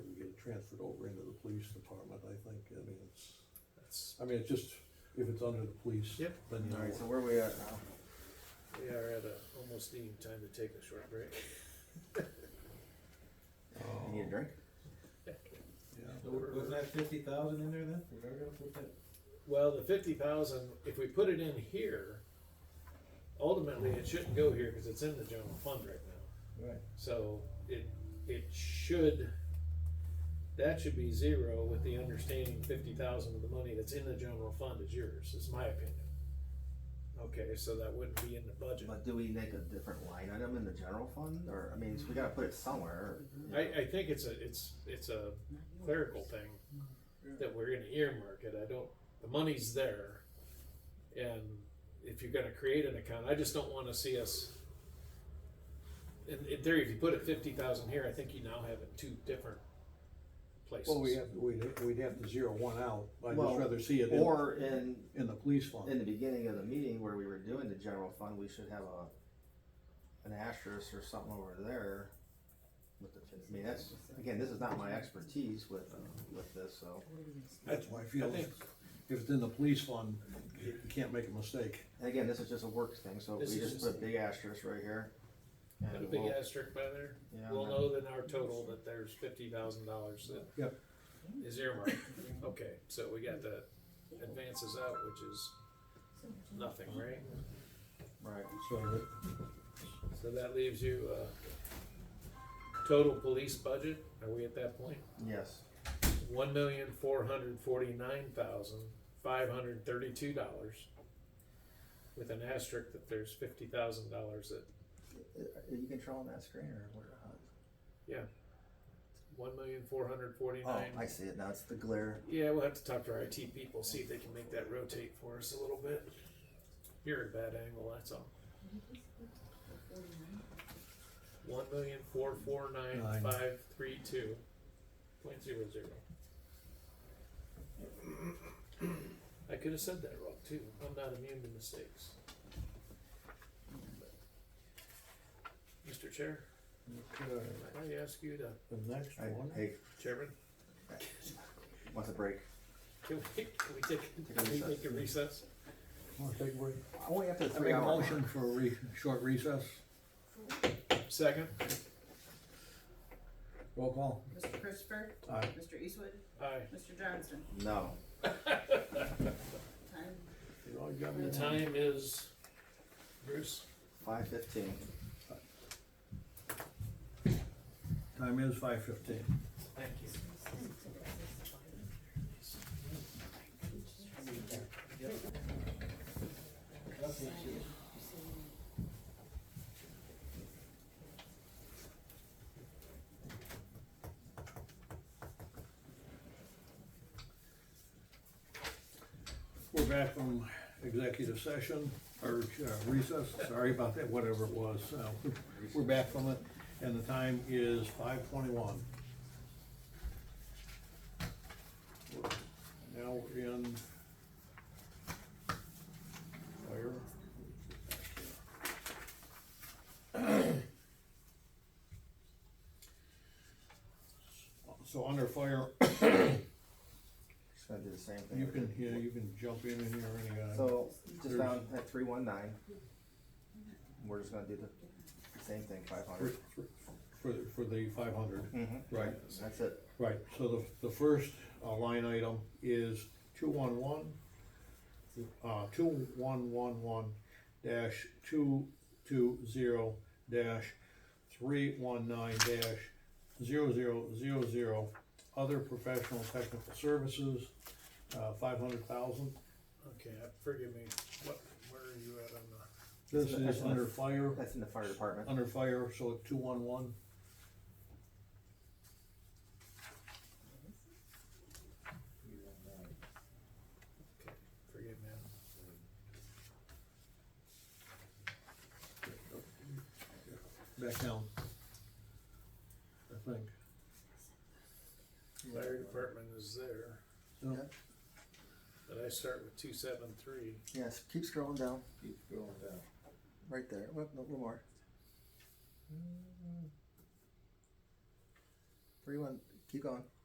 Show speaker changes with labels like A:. A: transferred over into the police department, I think, I mean, it's,
B: That's,
A: I mean, it's just, if it's under the police,
B: Yep.
A: then you
C: Alright, so
A: know.
C: where are we at now?
B: we are at a, almost needing time to take a short break.
C: You need a drink?
A: um, Yeah.
D: Was that fifty thousand in there then? We're never gonna put that.
B: Well, the fifty thousand, if we put it in here, ultimately it shouldn't go here because it's in the general fund right now.
D: Right.
B: So it, it should, that should be zero with the understanding fifty thousand of the money that's in the general fund is yours, is my opinion. Okay, so that wouldn't be in the budget.
C: But do we make a different line item in the general fund, or, I mean, so we gotta put it somewhere. you know.
B: I, I think it's a, it's, it's a clerical thing that we're gonna earmark it, I don't, the money's there. And if you're gonna create an account, I just don't wanna see us. In, in theory, if you put it fifty thousand here, I think you now have it two different places.
A: Well, we have, we'd, we'd have to zero one out, I'd
C: Well,
A: just rather see it in,
C: Or in,
A: in the police
C: in
A: fund.
C: the beginning of the meeting where we were doing the general fund, we should have a, an asterisk or something over there. With the, I mean, that's, again, this is not my expertise with, with this, so,
A: That's why I feel, if it's in the police fund, you you can't make a mistake.
C: and again, this is just a work thing, so we
B: This is
C: just put a big asterisk right here. and
B: Put a big
C: we'll-
B: asterisk by there,
C: yeah,
B: we'll
C: and-
B: know then our total that there's fifty thousand dollars that
A: Yep.
B: is earmarked, okay, so we got the advances out, which is nothing, right?
C: Right,
A: So that-
B: So that leaves you, uh, total police budget, are we at that point?
C: yes,
B: One million, four hundred forty-nine thousand, five hundred thirty-two dollars. With an asterisk that there's fifty thousand dollars that,
C: Uh, are you controlling that screen or what?
B: one million, four hundred
C: Oh,
B: forty-nine.
C: I see it now, it's the glare.
B: Yeah, we'll have to talk to our IT people, see if they can make that rotate for us a little bit. You're at a bad angle, that's all. One million, four, four, nine,
A: Nine.
B: five, three, two, point zero zero. I could have said that wrong too, I'm not immune to mistakes. Mr. Chair,
A: Okay,
B: can I ask you to,
A: uh, the next
C: Hey,
A: one,
C: Hey,
B: Chairman,
C: wants a break?
B: can we, can we take, can we
C: recess.
B: take a recess?
A: wanna take a break?
C: Only after
A: I make a motion for a re, short recess,
B: Second?
A: roll call.
E: Mr. Christopher?
A: Aye.
E: Mr. Eastwood?
B: Aye.
E: Mr. Johnson?
C: No.
E: Time
A: You know, you got me.
B: The time is, Bruce?
C: Five fifteen.
A: Time is five fifteen.
B: Thank you.
A: We're back from executive session, or uh, recess, sorry about that, whatever it was. Uh, We're back from it, and the time is five twenty-one. Now we're in fire. So under fire,
C: Just gonna do the same thing.
A: you can, yeah, you can jump in and here any, uh,
C: So, just down at three one nine. We're just gonna do the same thing, five
A: for,
C: hundred.
A: for, for the five hundred.
C: Mhm.
A: Right,
C: That's it.
A: right, so the, the first uh, line item is two-one-one, uh, two-one-one-one dash two-two-zero dash three-one-nine dash zero-zero-zero-zero, other professional technical services, uh, five hundred thousand.
B: Okay, uh, forgive me, what, where are you at on the,
A: This
C: That's
A: is
C: enough.
A: under fire,
C: That's in the fire department.
A: under fire, so two-one-one.
B: okay, forgive me.
A: back down. I think.
B: Fire department is there,
A: No,
C: Yeah.
B: but I start with two seven three,
C: Yes, keep scrolling down,
D: Keep going down.
C: right there, Well, no, a little more. Three one, keep going.